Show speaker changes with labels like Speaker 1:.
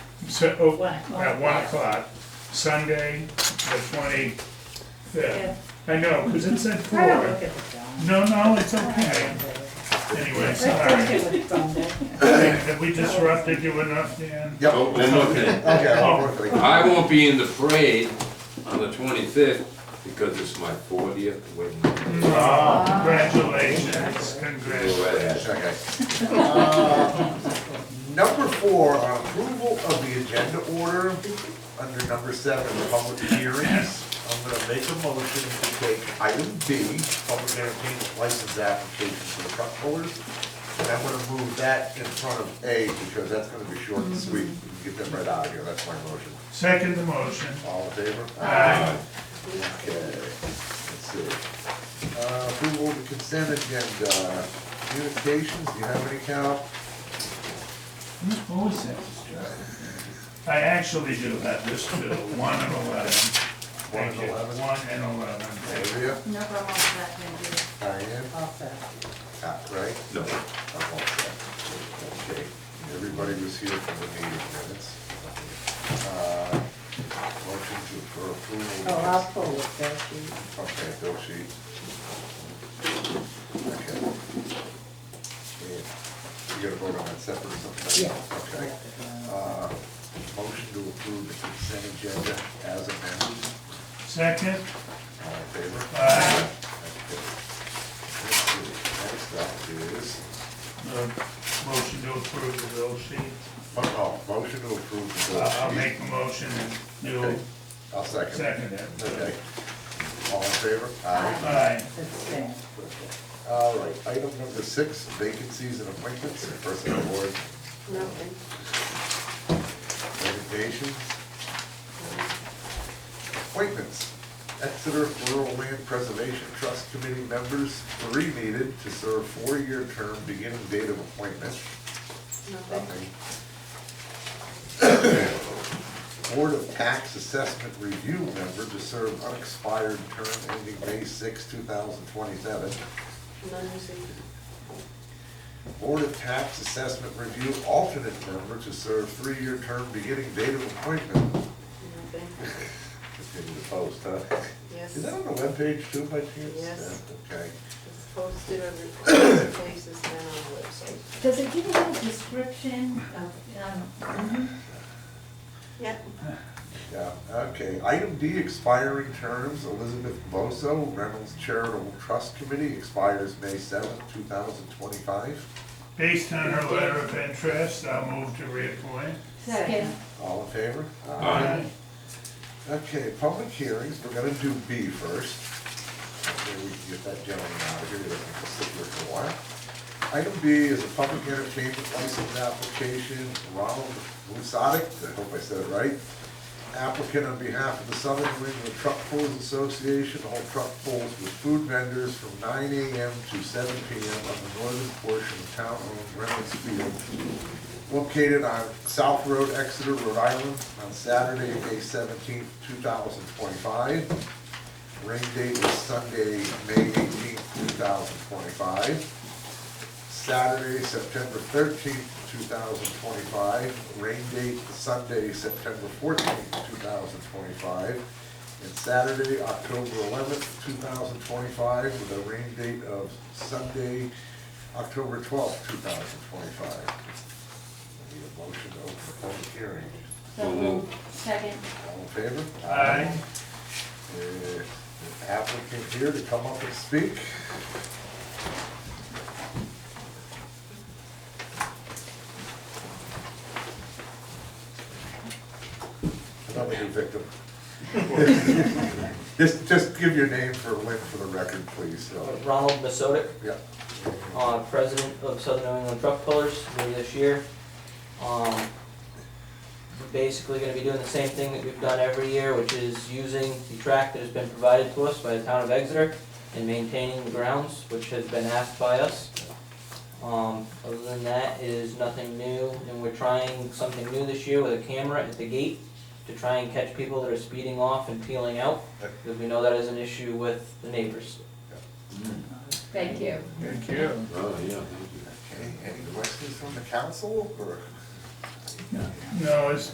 Speaker 1: So, oh,
Speaker 2: One o'clock.
Speaker 1: at one o'clock, Sunday, the twenty-fifth. I know, cause it said
Speaker 2: I don't
Speaker 1: four.
Speaker 2: look at the phone.
Speaker 1: No, no, it's okay. Anyway, sorry.
Speaker 2: Don't look at the phone, Dick.
Speaker 1: Have we disrupted you enough, Dan?
Speaker 3: Yep,
Speaker 4: Oh, one more thing.
Speaker 3: okay, I'll work with you.
Speaker 4: I won't be in the parade on the twenty-fifth because it's my fortieth wedding. anniversary.
Speaker 1: Oh, congratulations, congratulations.
Speaker 3: Okay. Uh, Number four, on approval of the agenda order, under number seven, public hearings. I'm gonna make a motion to take item B, public entertainment license application for the truck pullers. And I'm gonna move that in front of A, because that's gonna be short and sweet, We can get them right out of here, that's my motion.
Speaker 1: Second the motion.
Speaker 3: All in favor?
Speaker 1: Aye.
Speaker 3: Okay, let's see. Uh, approval of the consent agenda, communications, do you have any, Cal?
Speaker 1: What was that? I actually do have this too, one and eleven.
Speaker 3: One and
Speaker 1: Thank you.
Speaker 3: 11?
Speaker 1: One and eleven. Thank you.
Speaker 3: Andrea,
Speaker 5: No problem with that, thank you.
Speaker 3: Diane,
Speaker 2: All set.
Speaker 3: Ah, right?
Speaker 4: No,
Speaker 3: I'm all set. Okay, everybody was here for the meeting minutes. Uh, Motion to, for approval.
Speaker 2: Oh, I'll pull it, Dick.
Speaker 3: Okay, bill sheet. Okay. Yeah, You gotta vote on that separate or something?
Speaker 2: Yeah.
Speaker 3: Okay. Uh, Motion to approve the consent agenda as amended.
Speaker 1: Second,
Speaker 3: All in favor?
Speaker 1: Aye.
Speaker 3: Okay. Let's see, Next up is,
Speaker 1: uh, motion to approve the bill sheet.
Speaker 3: oh, oh, motion to approve the bill
Speaker 1: I'll I'll
Speaker 3: sheet.
Speaker 1: make a motion and you'll
Speaker 3: Okay. I'll second.
Speaker 1: second it.
Speaker 3: Okay. All in favor?
Speaker 1: Aye.
Speaker 2: It's Stan.
Speaker 3: All right, item number six, vacancies and appointments, personnel board.
Speaker 5: Nothing.
Speaker 3: Resignations. Appointments. Exeter Rural Land Preservation Trust Committee members, three needed to serve four-year term beginning date of appointment.
Speaker 5: Nothing.
Speaker 3: Nothing. Board of Tax Assessment Review member to serve unexpired term ending May 6, 2027.
Speaker 5: None received.
Speaker 3: Board of Tax Assessment Review alternate member to serve three-year term beginning date of appointment.
Speaker 5: Nothing.
Speaker 3: Continue to post, huh?
Speaker 5: Yes.
Speaker 3: Is that on the webpage too by chance?
Speaker 5: Yes.
Speaker 3: Yeah, Okay.
Speaker 5: It's posted on the places and on the website.
Speaker 6: Does it give a little description of, um,
Speaker 5: Yeah.
Speaker 3: Yeah, okay. Item D, expiring terms, Elizabeth Boso, Reynolds Charitable Trust Committee, expires May seventh, two thousand twenty-five.
Speaker 1: Based on her letter of interest, I'll move to reappoint.
Speaker 6: second?
Speaker 3: All in favor?
Speaker 4: Aye.
Speaker 3: Okay, public hearings, we're gonna do B first. Okay, we can get that gentleman out of here, he doesn't have to sit here for a while. Item B is a public entertainment license application, Ronald Musotic, I hope I said it right. Applicant on behalf of the Southern New England Truck Pulls Association, all truck pulls with food vendors from nine AM to seven PM on the northern portion of town-owned Reynolds Field, located on South Road, Exeter, Rhode Island, on Saturday, May seventeenth, two thousand twenty-five. Rain date is Sunday, May eighteenth, two thousand twenty-five. Saturday, September thirteenth, two thousand twenty-five. Rain date Sunday, September fourteenth, two thousand twenty-five. And Saturday, October eleventh, two thousand twenty-five, with a rain date of Sunday, October twelfth, two thousand twenty-five. I Need a motion to open the public hearing.
Speaker 6: So moved. Second,
Speaker 3: All in favor?
Speaker 1: Aye.
Speaker 3: Uh, Applicant here to come up and speak. Another new victim. Just, just give your name for, Lynn for the record, please, so,
Speaker 7: Ronald Masodic,
Speaker 3: yeah.
Speaker 7: uh, president of Southern New England Truck Pullers, new this year. Um, we're basically gonna be doing the same thing that we've done every year, which is using the track that has been provided to us by the town of Exeter and maintaining the grounds, which has been asked by us. Um, other than that, it is nothing new, and we're trying something new this year with a camera at the gate to try and catch people that are speeding off and peeling out, because we know that is an issue with the neighbors.
Speaker 6: thank you.
Speaker 1: Thank you.
Speaker 4: oh, yeah, thank you.
Speaker 3: Okay, any questions from the council, or?
Speaker 1: No, it's